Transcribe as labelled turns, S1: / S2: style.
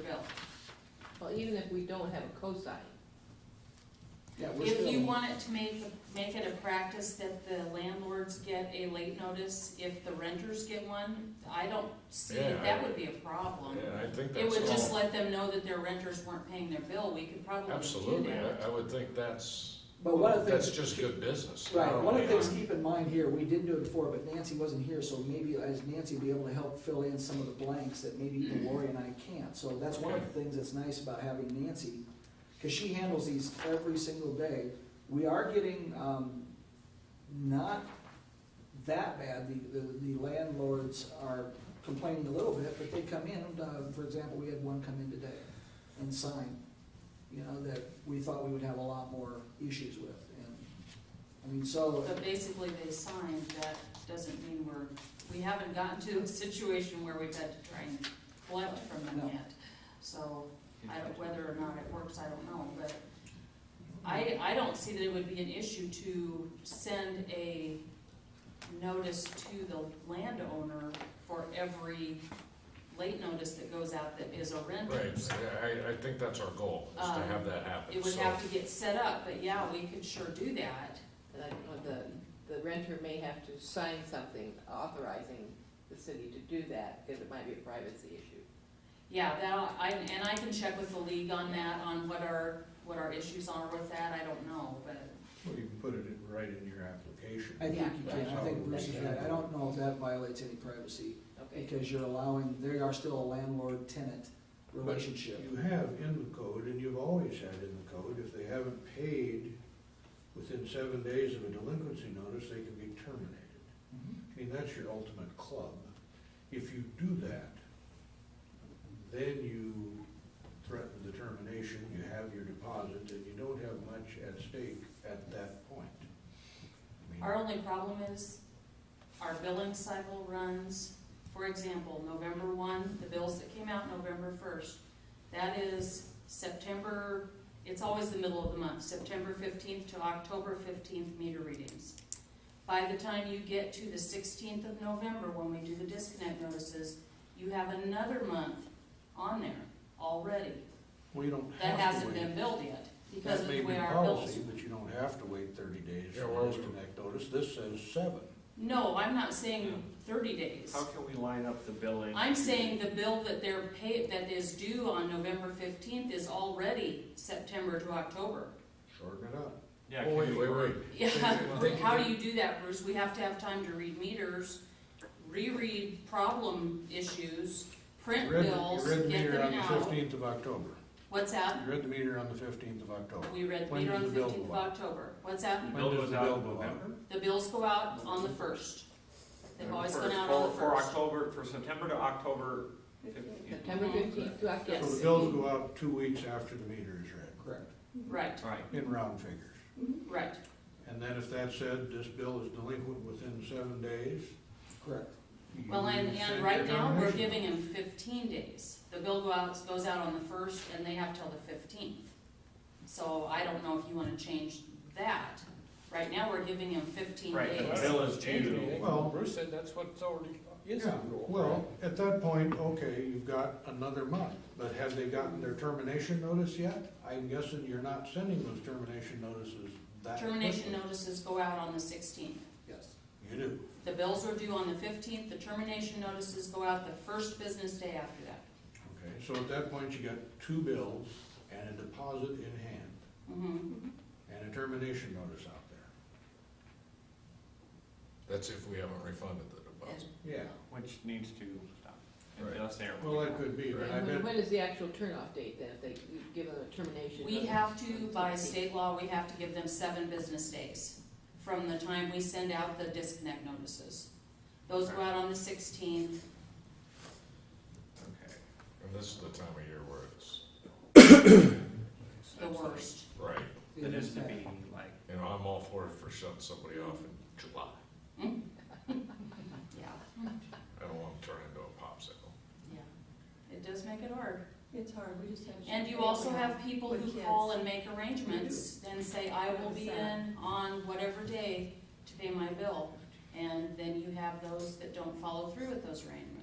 S1: bill.
S2: Well, even if we don't have a cosign,
S3: Yeah, we're
S1: If you
S3: still,
S1: want it to make, make it a practice that the landlords get a late notice, if the renters get one, I don't see,
S4: Yeah,
S1: that
S4: I-
S1: would be a problem.
S4: Yeah, I think
S1: It would
S4: that's
S1: just
S4: all,
S1: let them know that their renters weren't paying their bill, we could probably do
S4: absolutely,
S1: that.
S4: I, I would think that's,
S3: but one of the
S4: that's
S3: things,
S4: just good business.
S3: right, one of the
S4: Yeah.
S3: things to keep in mind here, we did do it before, but Nancy wasn't here, so maybe as Nancy be able to help fill in some of the blanks that maybe
S1: Mm-hmm.
S3: even Lori and I can't. So that's one of the things that's nice about having Nancy, because she handles these every single day. We are getting, um, not that bad, the, the- the landlords are complaining a little bit, but they come in, uh, for example, we had one come in today and sign, you know, that we thought we would have a lot more issues with, and, I mean, so,
S1: But basically, they signed, that doesn't mean we're, we haven't gotten to a situation where we've had to try and collect from
S3: No.
S1: them yet. So, I don't, whether or not it works, I don't know, but I, I don't see that it would be an issue to send a notice to the landowner for every late notice that goes out that is a renter.
S4: Right, yeah, I, I think that's our goal, is to
S1: Um,
S4: have that happen.
S1: It would
S4: So-
S1: have to get set up, but yeah, we could sure do that.
S2: and I, or the, the renter may have to sign something authorizing the city to do that, because it might be a privacy issue.
S1: Yeah, that, I, and I can check with the league on that, on what our, what our issues are with that, I don't know, but.
S5: Well, you can put it in, right in your application.
S3: I think
S1: Yeah.
S3: you can, I think Bruce is right, I don't know if that violates any privacy,
S2: Okay,
S3: because you're allowing, they are still a landlord-tenant relationship.
S5: You have in the code, and you've always had in the code, if they haven't paid within seven days of a delinquency notice, they can be terminated.
S3: Mm-hmm.
S5: I mean, that's your ultimate club. If you do that, then you threaten the termination, you have your deposit, and you don't have much at stake at that point. I mean,
S1: Our only problem is our billing cycle runs, for example, November one, the bills that came out November first. That is September, it's always the middle of the month, September fifteenth to October fifteenth meter readings. By the time you get to the sixteenth of November, when we do the disconnect notices, you have another month on there already.
S5: Well, you don't
S1: That
S5: have to
S1: hasn't
S5: wait.
S1: been billed yet because of
S5: That may
S1: the
S5: be
S1: way our bills.
S5: policy, but you don't have to wait thirty days
S4: Yeah,
S5: for
S4: well,
S5: this disconnect notice, this says seven.
S1: No, I'm not saying thirty days.
S6: How can we line up the billing?
S1: I'm saying the bill that they're paid, that is due on November fifteenth is already September to October.
S5: Shorten it up.
S6: Yeah,
S4: Oh,
S6: can
S4: wait,
S6: we-
S4: wait, wait.
S1: Yeah,
S4: They-
S1: how do you do that, Bruce? We have to have time to read meters, reread problem issues,
S5: You
S1: print
S5: read the-
S1: bills,
S5: You read the
S1: get
S5: meter on
S1: them
S5: the
S1: out.
S5: fifteenth of October.
S1: What's that?
S5: You read the meter on the fifteenth of October.
S1: We read the
S5: When
S1: meter on
S5: does
S1: the
S5: the bill
S1: fifteenth of
S5: go out?
S1: October. What's that?
S6: The
S5: When
S6: bill
S5: does
S6: goes
S5: the
S6: out
S5: bill
S6: in
S5: go out?
S6: November?
S1: The bills go out on the first. They've always
S6: For-
S1: gone out
S6: for-
S1: on the
S6: For
S1: first.
S6: October, for September to October fifteenth.
S2: September fifteenth to
S5: So
S2: October.
S5: the bills go out two weeks after the meter is read,
S3: Correct.
S1: Right,
S6: Right,
S5: in round figures.
S1: right.
S5: And then if that said, this bill is delinquent within seven days.
S3: Correct.
S5: you
S1: Well, and,
S5: send
S1: and right
S5: your
S1: now, we're
S5: termination
S1: giving
S5: notice.
S1: them fifteen days. The bill go out, goes out on the first, and they have till the fifteenth. So I don't know if you wanna change that. Right now, we're giving them fifteen
S6: Right, the
S1: days.
S6: bill is due.
S5: Well-
S4: Bruce said that's what's already is the
S5: Yeah,
S4: rule.
S5: well, at that point, okay, you've got another month, but have they gotten their termination notice yet? I'm guessing you're not sending those termination notices that
S1: Termination
S5: quickly.
S1: notices go out on the sixteenth.
S3: Yes.
S5: You do.
S1: The bills are due on the fifteenth, the termination notices go out the first business day after that.
S5: Okay, so at that point, you got two bills and a deposit in hand
S1: Mhm.
S5: and a termination notice out there.
S4: That's if we haven't refunded the deposit.
S5: Yeah,
S6: which needs to stop. And
S4: Right.
S6: just there.
S5: well, that could be, but I
S2: And when-
S5: bet,
S2: when is the actual turnoff date then, if they give them a termination?
S1: We
S2: notice
S1: have to,
S2: on the
S1: by
S2: 16th?
S1: state law, we have to give them seven business days from the time we send out the disconnect notices. Those go out on the sixteenth,
S6: Okay.
S4: And this is the time of year where it's,
S1: the worst.
S4: right,
S6: It is to be like,
S4: you know, I'm all for it for shutting somebody off in July.
S1: Yeah,
S4: I don't want to turn into a popsicle.
S1: yeah. It does make it hard.
S7: It's hard, we just have.
S1: And you also have people
S7: With
S1: who
S7: kids.
S1: call and make arrangements and say, I will be in on whatever day to pay my bill. And then you have those that don't follow through with those arrangements.